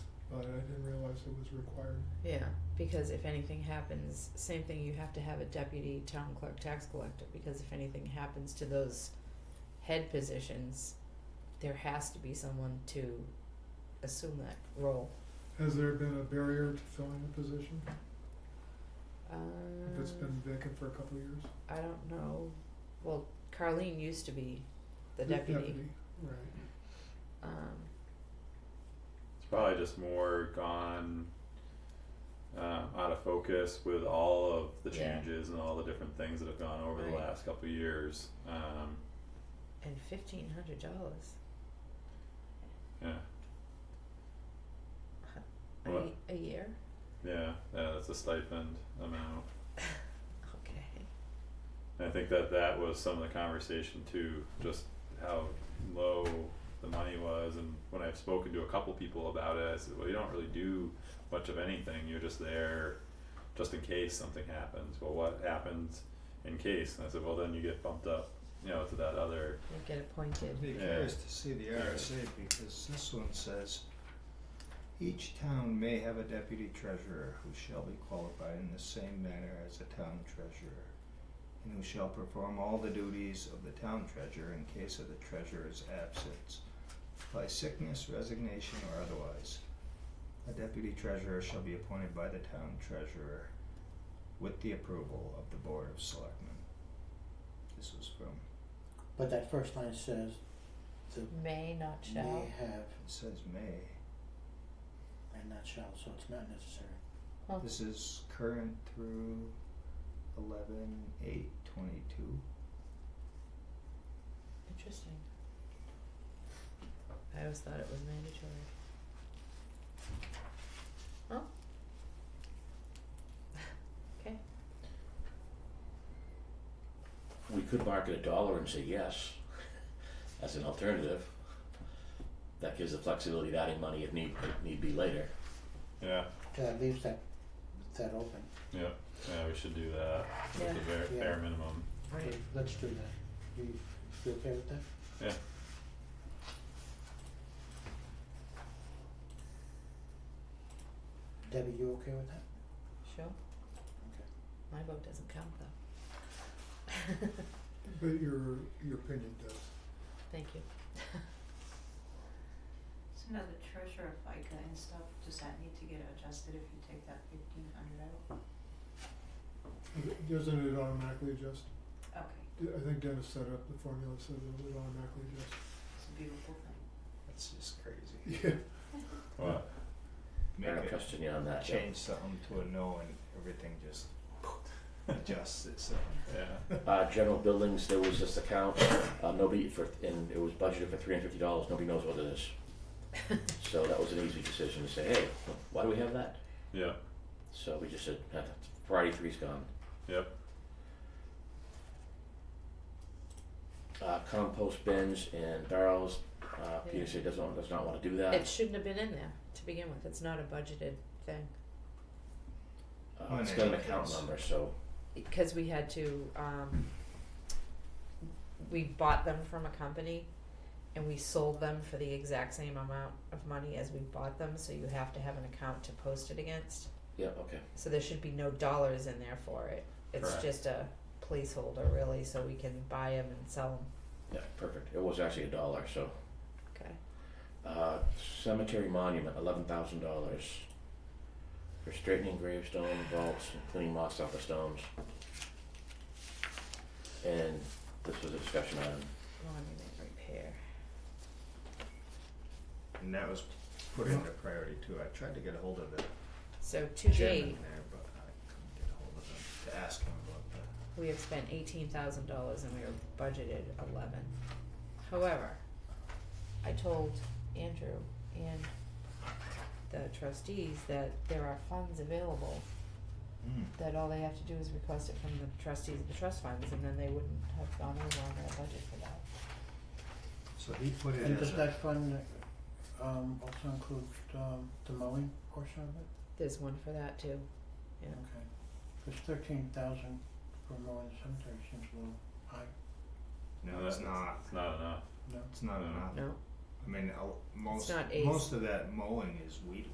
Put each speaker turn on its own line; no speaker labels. it was required.
Yeah, because if anything happens, same thing, you have to have a deputy town clerk tax collector, because if anything happens to those head positions, there has to be someone to assume that role.
Has there been a barrier to filling the position? If it's
Um,
been vacant for a couple of years?
I don't know, well, Carlene used to be the deputy, Mm-hmm.
Right.
um,
It's probably just more gone um, out of focus with all of the
Yeah.
changes and all the different things that have gone over the
Right.
last couple of years. Um,
and fifteen hundred dollars,
yeah,
a,
What?
ye- a year,
yeah, yeah, that's a stipend amount.
okay,
And I think that that was some of the conversation too, just how low the money was. And when I've spoken to a couple people about it, I said, well, you don't really do much of anything. You're just there just in case something happens. Well, what happens in case? And I said, well, then you get bumped up, you know, to that other.
you get appointed,
I'd be
Yeah.
curious to see the
Yeah.
RSA because this one says, each town may have a deputy treasurer who shall be qualified in the same manner as a town treasurer and who shall perform all the duties of the town treasurer in case of the treasurer's absence by sickness, resignation, or otherwise. A deputy treasurer shall be appointed by the town treasurer with the approval of the board of selectmen. This was from,
But that first line says the
may not
may
shall,
have
it says may.
and not shall, so it's not necessary.
huh,
This is current through eleven eight twenty-two.
interesting. I always thought it was mandatory.
we could market a dollar and say yes as an alternative. That gives the flexibility of adding money if need, if need be later.
Yeah,
That leaves that that open.
yeah, yeah, we should do that
Yeah.
with the bare, bare minimum.
Let- Let's do that. You you okay with that?
Yeah,
Debbie, you okay with that?
Sure.
Okay.
My vote doesn't count though.
But your, your opinion does.
Thank you.
So now the treasurer FICA and stuff, does that need to get adjusted if you take that fifteen hundred out?
Doesn't it automatically adjust?
Okay,
I think Dennis set up the formula, so it would automatically adjust.
it's a beautiful thing.
That's just crazy.
Yeah.
well,
Make
I have a
it-
question on that. Joe.
Change something to a no and everything just adjusts itself.
yeah,
Uh, general buildings, there was this account, uh, nobody for, and it was budgeted for three hundred fifty dollars, nobody knows what it is. So that was an easy decision to say, hey, why do we have that?
yeah,
So we just said, "Ah, Friday three's gone.
yep,
Uh, compost bins and barrels, uh,
Yeah.
Peter said doesn't, does not wanna do that.
It shouldn't have been in there to begin with. It's not a budgeted thing.
Uh, it's got an account
Yes.
number, so,
Because we had to, um, we bought them from a company and we sold them for the exact same amount of money as we bought them, so you have to have an account to post it against.
yeah, okay.
So there should be no dollars in there for it. It's
Correct.
just a placeholder really, so we can buy them and sell them.
Yeah, perfect. It was actually a dollar, so.
Okay.
Uh, cemetery monument, eleven thousand dollars. For straightening gravestone vaults and cleaning moss off the stones. And this was a discussion item.
Monument repair.
And that was put into priority too. I tried to get a hold of the
So to date,
chairman there, but I couldn't get a hold of him to ask him about that.
we have spent eighteen thousand dollars and we were budgeted eleven. However, I told Andrew and the trustees that there are funds available,
Hmm.
that all they have to do is request it from the trustees of the trust funds, and then they wouldn't have gone over on their budget for that.
So he put it
And
as
does
a,
that fund um also include um the mowing portion of it?
There's one for that too, yeah.
Okay. Cause thirteen thousand for mowing the cemetery seems a little high,
no, it's
That's-
not,
it's not enough.
no?
it's not
No.
enough.
No,
I mean, I'll- most,
not a-
most of that mowing is weed